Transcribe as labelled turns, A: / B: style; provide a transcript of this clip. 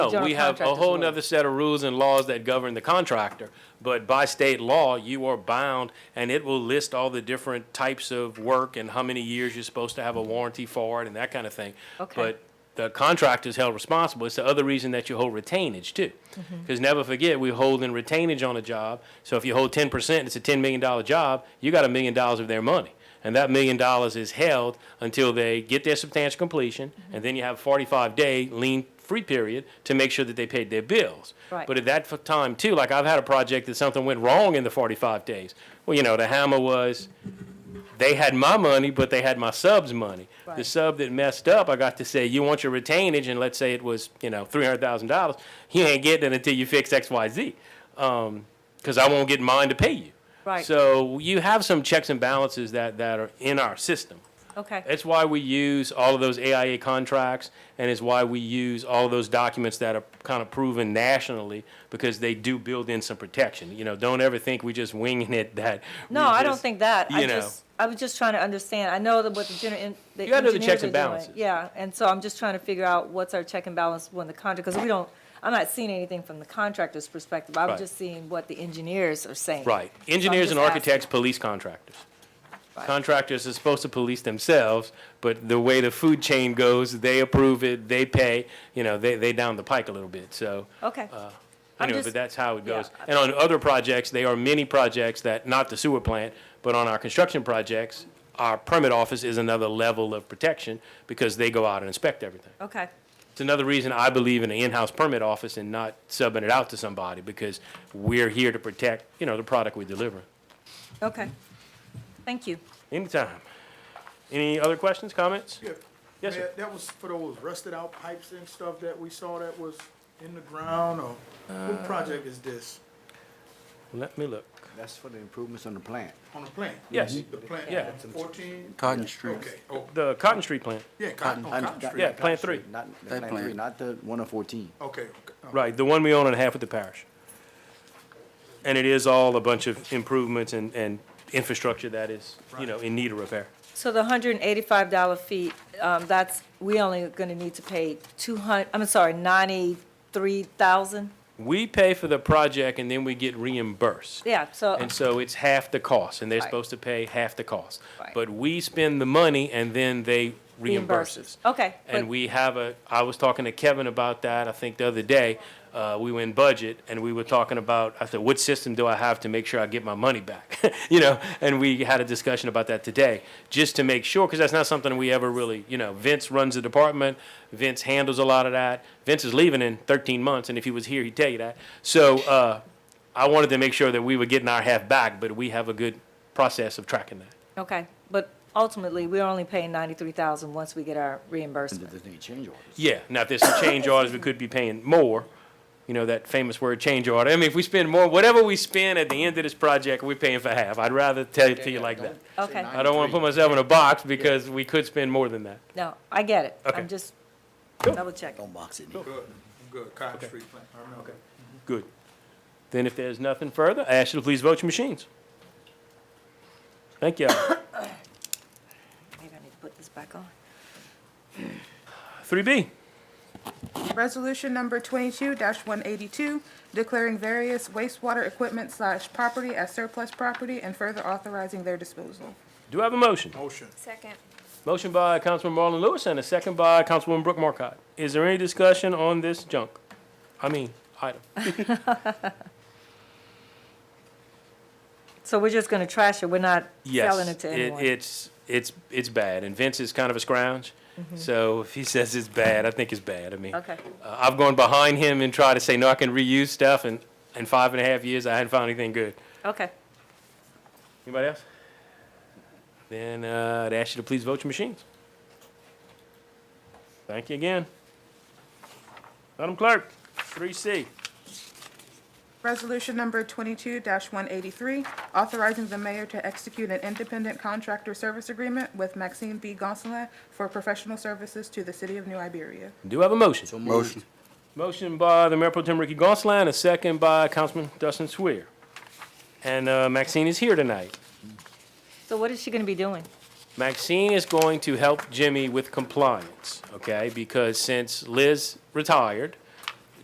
A: No,
B: general
A: Oh, we have a
B: contractor's
A: whole
B: law.
A: nother set of rules and laws that govern the contractor. But by state law, you are bound, and it will list all the different types of work and how many years you're supposed to have a warranty for it and that kind of thing.
B: Okay.
A: But the contractor is held responsible. It's the other reason that you hold retainage too. Because never forget, we hold in retainage on a job. So if you hold ten percent, it's a ten million dollar job, you got a million dollars of their money. And that million dollars is held until they get their substantial completion, and then you have forty-five day lien free period to make sure that they paid their bills.
B: Right.
A: But at that f- time too, like I've had a project that something went wrong in the forty-five days. Well, you know, the hammer was, they had my money, but they had my sub's money. The
B: Right.
A: sub that messed up, I got to say, you want your retainage, and let's say it was, you know, three hundred thousand dollars. You ain't getting it until you fix X, Y, Z, because I won't get mine to pay you.
B: Right.
A: So you have some checks and balances that that are in our system.
B: Okay.
A: That's why we use all of those AIA contracts, and it's why we use all of those documents that are kind of proven nationally, because they do build in some protection. You know, don't ever think we just winging it that. we
B: No, I don't
A: just-
B: think that. I
A: you know.
B: just, I was just trying to understand. I know that what the gener, in- the engineers are doing.
A: You gotta do the checks and balances.
B: Yeah, and so I'm just trying to figure out what's our check and balance when the contract, because we don't, I'm not seeing anything from the contractor's perspective. I'm
A: Right.
B: just seeing what the engineers are saying.
A: Right.
B: So I'm
A: Engineers and
B: just
A: architects police contractors.
B: Right.
A: Contractors are supposed to police themselves, but the way the food chain goes, they approve it, they pay, you know, they, they down the pike a little bit, so.
B: asking. Okay,
A: uh,
B: I'm
A: Anyway,
B: just-
A: but that's how it
B: yeah.
A: goes. And on other projects, there are many projects that, not the sewer plant, but on our construction projects, our permit office is another level of protection because they go out and inspect everything.
B: okay,
A: It's another reason I believe in an in-house permit office and not subbing it out to somebody because we're here to protect, you know, the product we're delivering.
B: okay. Thank you.
A: Anytime. Any other questions, comments?
C: Yeah.
A: Yes, sir.
C: That- That was for those rusted out pipes and stuff that we saw that was in the ground or
D: Uh,
C: what project is this
A: Let me look.
E: That's for the improvements on the plant.
C: on the plant?
A: Yes.
C: The plant,
A: Yeah.
C: fourteen?
D: Cotton Street.
C: Okay, oh,
A: The Cotton Street plant,
C: yeah, Cotton, on
D: Cotton-
C: Cotton Oh, Street.
A: yeah, Plant Three.
E: Not, the
D: That
E: plant three,
D: plant.
E: not the one on fourteen.
C: Okay, okay. oh,
A: Right, the one we own and half with the parish. And it is all a bunch of improvements and, and infrastructure that is, you know, in need of repair.
B: So the hundred and eighty-five dollar fee, um, that's, we only gonna need to pay two hun, I'm sorry, ninety-three thousand?
A: We pay for the project and then we get reimbursed.
B: Yeah, so,
A: And so it's half the cost, and they're
B: Right.
A: supposed to pay half the cost.
B: Right.
A: But we spend the money and then they reimburse us.
B: Reimburses. Okay,
A: And
B: but-
A: we have a, I was talking to Kevin about that, I think the other day. Uh, we were in budget and we were talking about, I said, what system do I have to make sure I get my money back? You know, and we had a discussion about that today, just to make sure, because that's not something we ever really, you know, Vince runs the department. Vince handles a lot of that. Vince is leaving in thirteen months, and if he was here, he'd tell you that. So, uh, I wanted to make sure that we were getting our half back, but we have a good process of tracking that.
B: okay, but ultimately, we're only paying ninety-three thousand once we get our
E: And
B: reimbursement.
E: there's any change orders.
A: Yeah, now if there's some change orders, we could be paying more, you know, that famous word, change order. I mean, if we spend more, whatever we spend at the end of this project, we're paying for half. I'd rather tell it to you like that.
B: Okay,
A: I don't want to put myself in a box because we could spend more than that.
B: no, I get it.
A: Okay.
B: I'm just double checking.
E: Don't box it in.
C: Good, good, Cotton Street plant, I remember.
A: Good. Then if there's nothing further, I ask you to please vote your machines. Thank you.
B: Maybe I need to put this back on.
A: Three B,
F: Resolution number twenty-two one eighty-two, declaring various wastewater equipment slash property as surplus property and further authorizing their disposal.
A: do I have a motion?
C: Motion,
G: Second.
A: Motion by Councilman Marlon Lewis and a second by Councilwoman Brooke Markcott. Is there any discussion on this junk? I mean, item.
B: So we're just gonna trash it, we're not
A: Yes,
B: selling it to anyone?
A: it's it's it's bad, and Vince is kind of a scrounge. So if he says it's bad, I think it's bad. I mean,
B: Mm-hmm. Okay.
A: uh, I've gone behind him and tried to say no, I can reuse stuff, and in five and a half years, I hadn't found anything good.
B: Okay,
A: Anybody else? Then uh, I'd ask you to please vote your machines. Thank you again, Madam Clerk. Three C.
F: Resolution number twenty-two one eighty-three, authorizing the mayor to execute an independent contractor service agreement with Maxine B. Gonsalves for professional services to the city of New Iberia.
A: Do I have a motion?
D: Motion.
A: Motion by the Mayor Pro Tem Ricky Gonsalas, a second by Councilman Dustin Swier. And uh, Maxine is here tonight.
B: so what is she gonna be doing?
A: Maxine is going to help Jimmy with compliance, okay? Because since Liz retired,